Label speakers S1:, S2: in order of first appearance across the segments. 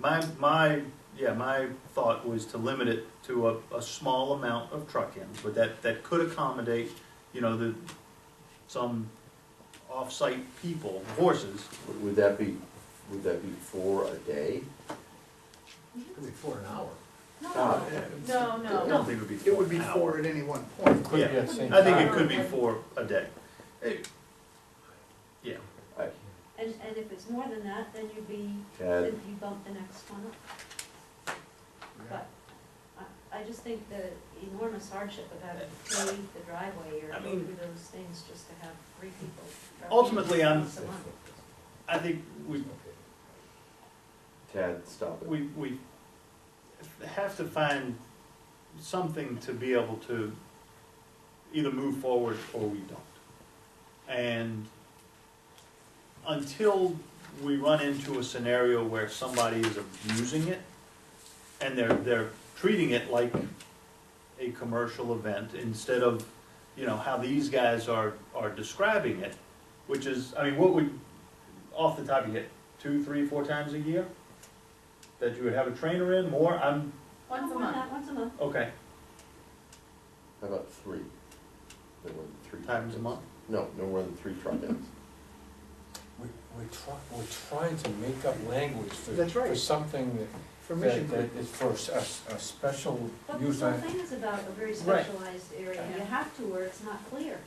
S1: My, my, yeah, my thought was to limit it to a, a small amount of truck-ins, but that, that could accommodate, you know, the, some off-site people, horses.
S2: Would- Would that be, would that be for a day?
S3: Could be for an hour.
S2: Ah,
S4: No,
S2: yeah.
S4: no,
S1: I don't
S4: no.
S1: think it would be
S3: It would be
S1: an hour.
S3: four at any one point.
S5: Could be
S1: Yeah.
S5: at the same
S1: I think it
S5: time.
S1: could be for a day. It- Yeah,
S2: I-
S4: And, and if it's more than that, then you'd be,
S2: Ted,
S4: then you bump the next one up. But I, I just think the enormous hardship of having to pave the driveway or
S1: I
S4: go
S1: mean-
S4: through those things just to have three people. driving
S1: Ultimately, I'm-
S4: once a month.
S1: I think we,
S2: Ted, stop it.
S1: we, we have to find something to be able to either move forward or we don't. And until we run into a scenario where somebody is abusing it and they're, they're treating it like a commercial event instead of, you know, how these guys are, are describing it, which is, I mean, what would, off the top of your head, two, three, four times a year? that you would have a trainer in, more, I'm,
S4: No,
S6: Once a
S4: more than that,
S6: month.
S4: Once a month.
S1: okay,
S2: How about three? No more than three.
S1: times a
S2: truck-ins.
S1: month.
S2: No, no more than three truck-ins.
S5: We, we're trying, we're trying to make up language for,
S3: That's right.
S5: for something that,
S3: For
S5: that,
S3: Mission Creek.
S5: that is for s- a, s- a special
S4: But
S5: use.
S4: the whole
S5: I-
S4: thing is about a very
S5: Right.
S4: specialized area, you
S6: Yeah.
S4: have to where it's not clear.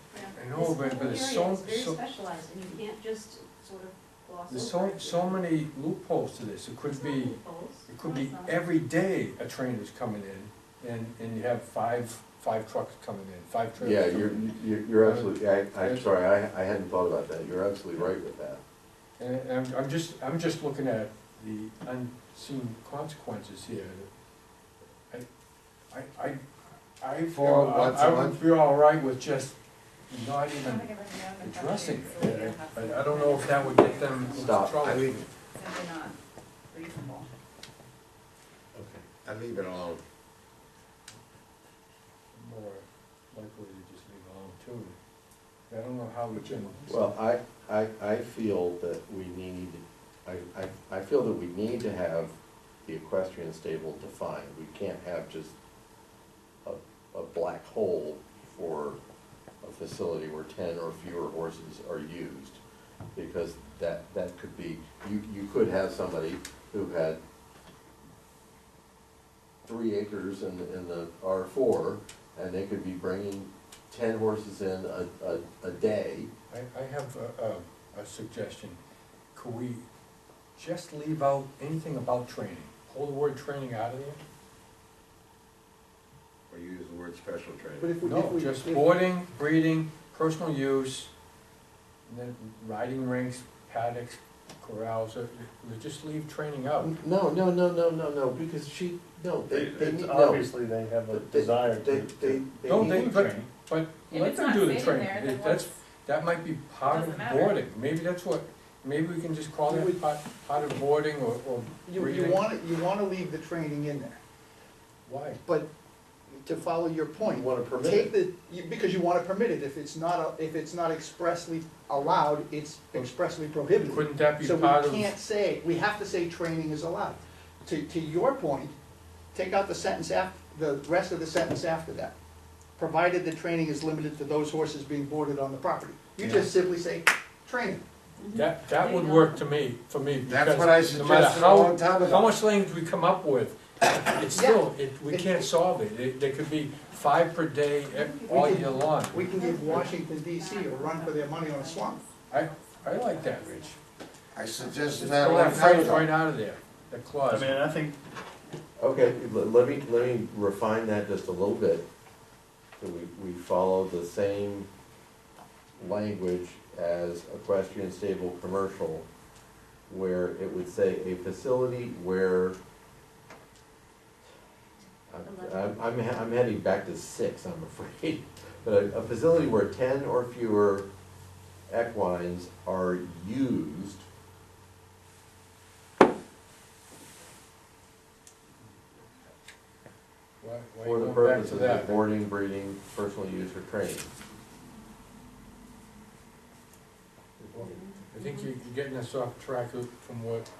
S5: I know, but, but there's
S4: This
S5: so,
S4: whole area is very
S5: so,
S4: specialized, and you can't just sort of gloss over.
S5: there's so,
S4: it.
S5: so many loopholes to this. It could
S4: It's not
S5: be,
S4: loopholes.
S5: it could
S4: No,
S5: be
S4: it's not.
S5: every day a train is coming in and, and you have five, five trucks coming in, five
S2: Yeah,
S5: trailers. coming
S2: you're,
S5: in.
S2: you're- you're absolutely, I, I'm
S5: Yes.
S2: sorry, I, I hadn't thought about that. You're absolutely right with that.
S5: And I'm, I'm just, I'm just looking at the unseen consequences here. I, I, I, I
S7: For
S5: feel,
S7: once a
S5: I would
S7: month?
S5: feel all right with just not
S6: I don't
S5: even
S6: think I've ever known the
S5: addressing
S6: question, so we
S5: it.
S6: don't have
S5: I,
S6: to-
S5: I don't know if that would get them into
S2: Stop. I
S5: trouble.
S7: leave,
S6: Simply not reasonable.
S7: I leave it alone.
S5: More likely to just leave alone too. I don't know how we can.
S2: Well, I, I, I feel that we need, I, I, I feel that we need to have the equestrian stable defined. We can't have just a, a black hole for a facility where ten or fewer horses are used. Because that, that could be, you, you could have somebody who had three acres in, in the R four, and they could be bringing ten horses in a, a, a day,
S5: I, I have a, a, a suggestion. Could we just leave out anything about training? Pull the word training out of there?
S7: Or use the word special
S3: But
S7: training.
S3: if we, if
S5: No,
S3: we.
S5: just
S3: if-
S5: boarding, breeding, personal use, and then riding rinks, paddocks, corrals, uh, we just leave training out.
S2: No, no, no, no, no, no, because she, no, they, they need,
S1: It's
S2: no.
S1: Obviously, they have a
S2: They-
S1: desire
S2: They,
S1: to.
S2: they, they
S5: Don't they,
S2: need,
S5: but, but
S6: If
S5: let
S6: it's
S5: them
S6: not
S5: do the
S6: stated there,
S5: training,
S6: then
S5: that's,
S6: what's,
S5: that might be part
S6: Doesn't
S5: of
S6: matter.
S5: boarding, maybe that's what, maybe we can just call
S3: We-
S5: it part, part of boarding or, or
S3: You, you
S5: breathing.
S3: wanna, you wanna leave the training in there,
S5: why?
S3: but to follow your
S2: you
S3: point,
S2: wanna permit
S3: take
S2: it.
S3: the, you- because you wanna permit it, if it's not, a- if it's not expressly allowed, it's expressly prohibited.
S5: Couldn't that be
S3: So
S5: part
S3: we
S5: of,
S3: can't say, we have to say training is allowed. To, to your point, take out the sentence af, the rest of the sentence after that. Provided the training is limited to those horses being boarded on the property. You
S5: Yeah.
S3: just simply say, training.
S5: that, that
S6: There
S5: would
S6: you go.
S5: work to me, for me,
S7: That's
S5: because
S7: what I
S5: no matter
S7: suggested a
S5: how,
S7: long time
S5: how
S7: ago.
S5: much language we come up with, it's still, it, we can't solve it, it, there could be five per day e- all year long.
S3: We can give Washington DC a run for their money on a swamp.
S5: I, I like that, Rich.
S7: I suggested
S5: Just
S7: that a
S5: throw
S7: long
S5: that
S7: time
S5: phrase right
S7: ago.
S5: out of there, the
S1: I
S5: clause.
S1: mean, I think,
S2: Okay, le- let me, let me refine that just a little bit, so we, we follow the same language as equestrian stable commercial, where it would say a facility where I'm- I'm, I'm, he- I'm heading back to six, I'm afraid, but a, a facility where ten or fewer equines are used
S5: Why, why
S2: For
S5: you
S2: the
S5: going back to
S2: purposes of
S5: that?
S2: boarding, breeding, personal use, or training.
S5: I think you- you're getting us off track of- from what